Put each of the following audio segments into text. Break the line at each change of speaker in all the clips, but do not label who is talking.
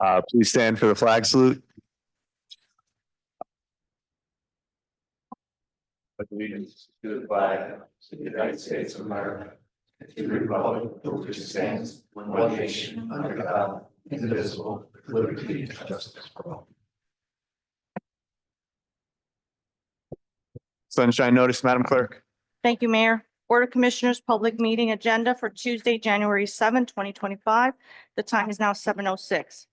Uh, please stand for the flag salute.
allegiance to the flag of the United States of America. and To the republic for which it stands, one nation, under God, indivisible, with liberty and justice for all.
Sunshine notice, Madam Clerk.
Thank you, Mayor. Board of Commissioners, public meeting agenda for Tuesday, January 7, 2025. The time is now 7:06.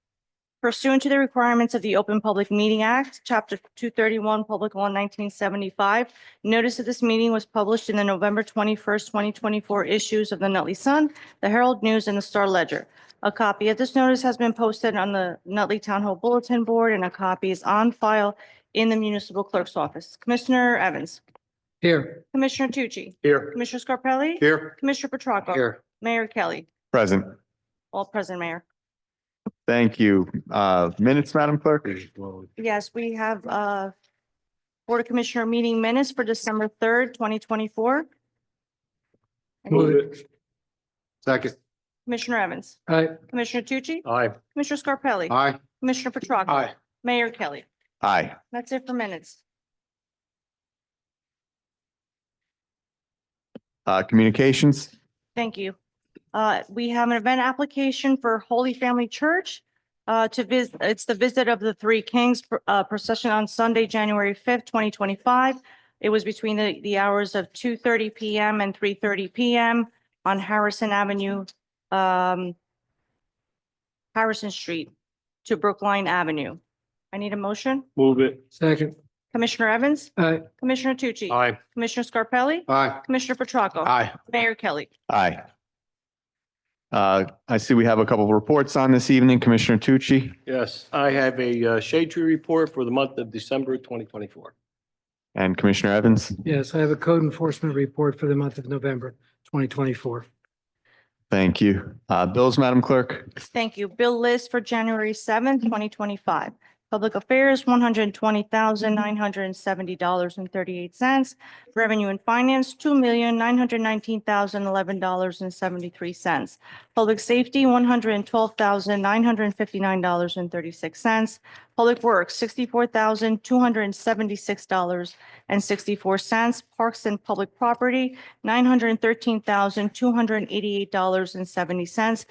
Pursuant to the requirements of the Open Public Meeting Act, Chapter 231, Public Law 1975, notice of this meeting was published in the November 21st, 2024 issues of the Nutley Sun, the Herald News, and the Star Ledger. A copy of this notice has been posted on the Nutley Town Hall Bulletin Board, and a copy is on file in the municipal clerk's office. Commissioner Evans,
Here.
Commissioner Tucci,
Here.
Commissioner Scarpelli?
Here.
Commissioner Petracca?
Here.
Mayor Kelly?
Present.
All present, Mayor.
Thank you. Uh, minutes, Madam Clerk.
Yes, we have uh Board of Commissioner meeting minutes for December third, twenty twenty-four.
Move it. Second.
Commissioner Evans,
Aye.
Commissioner Tucci,
Aye.
Commissioner Scarpelli?
Aye.
Commissioner Petracca?
Aye.
Mayor Kelly?
Aye.
That's it for minutes.
Uh, communications.
Thank you. Uh, we have an event application for Holy Family Church. Uh, to visit, it's the visit of the Three Kings uh, procession on Sunday, January fifth, twenty twenty-five. It was between the, the hours of two thirty PM and three thirty PM on Harrison Avenue, um, Harrison Street to Brookline Avenue. I need a motion.
Move it. Second.
Commissioner Evans,
Uh,
Aye.
Commissioner Tucci.
Aye.
Commissioner Scarpelli,
Aye.
Commissioner Petracca.
Aye.
Mayor Kelly.
Aye. Uh, I see we have a couple of reports on this evening. Commissioner Tucci.
Yes, I have a uh, shade tree report for the month of December twenty twenty-four.
And Commissioner Evans,
Yes, I have a code enforcement report for the month of November twenty twenty-four.
thank you. Uh, bills, Madam Clerk.
Thank you. Bill list for January seventh, twenty twenty-five. Public Affairs, one hundred and twenty thousand, nine hundred and seventy dollars and thirty-eight cents. Revenue and Finance, two million, nine hundred nineteen thousand, eleven dollars and seventy-three cents. Public Safety, one hundred and twelve thousand, nine hundred and fifty-nine dollars and thirty-six cents. Public Works, sixty-four thousand, two hundred and seventy-six dollars and sixty-four cents. Parks and Public Property, nine hundred and thirteen thousand, two hundred and eighty-eight dollars and seventy cents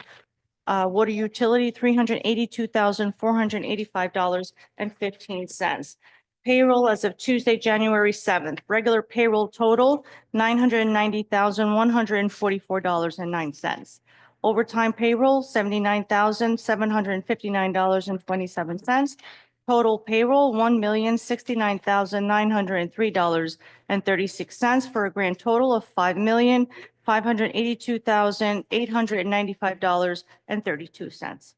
uh, water utility, three hundred eighty-two thousand, four hundred eighty-five dollars and fifteen cents. Payroll as of Tuesday, January seventh, regular payroll total, nine hundred ninety thousand, one hundred forty-four dollars and nine cents. Overtime payroll, seventy-nine thousand, seven hundred fifty-nine dollars and twenty-seven cents. Total payroll, one million, sixty-nine thousand, nine hundred three dollars and thirty-six cents for a grand total of five million, five hundred eighty-two thousand, eight hundred ninety-five dollars and thirty-two cents.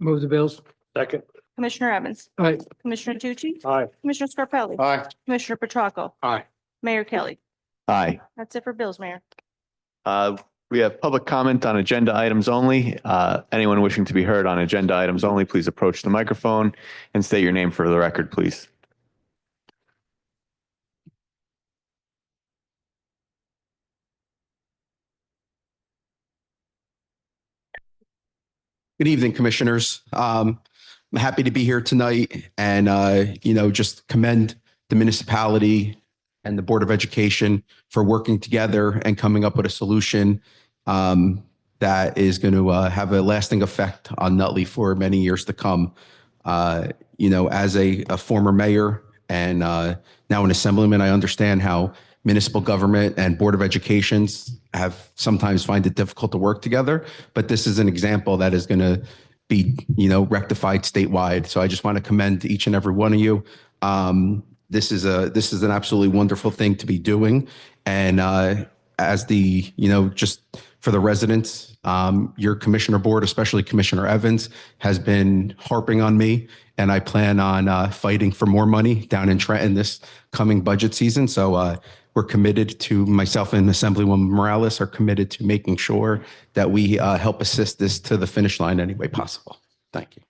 Move the bills.
Second.
Commissioner Evans,
Aye.
Commissioner Tucci,
Aye.
Commissioner
Uh,
Scarpelli,
Aye.
Commissioner Petracca.
Aye.
Mayor Kelly.
Aye.
That's it for bills, Mayor.
Uh, we have public comment on agenda items only. Uh, anyone wishing to be heard on agenda items only, please approach the microphone and state your name for the record, please.
Good evening, commissioners. Um, I'm happy to be here tonight and, uh, you know, just commend the municipality and the Board of Education for working together and coming up with a solution um, that is going to uh, have a lasting effect on Nutley for many years to come. Uh, you know, as a, a former mayor and uh, now an assemblyman, I understand how municipal government and Board of Educations have sometimes find it difficult to work together but this is an example that is going to be you know rectified statewide so i just want to commend each and every one of you um, this is a this is an absolutely wonderful thing to be doing and uh, as the you know just for the residents um, your commissioner board especially commissioner evans has been harping on me and i plan on uh, fighting for more money down in trenton this coming budget season so uh, we're committed to myself and Assemblywoman Morales are committed to making sure that we uh, help assist this to the finish line any way possible. Thank you.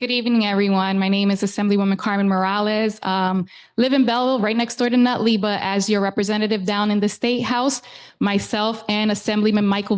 Good evening, everyone. My name is Assemblywoman Carmen Morales. Um, live in Belleville, right next door to Nutley, but as your representative down in the State House, myself and Assemblyman Michael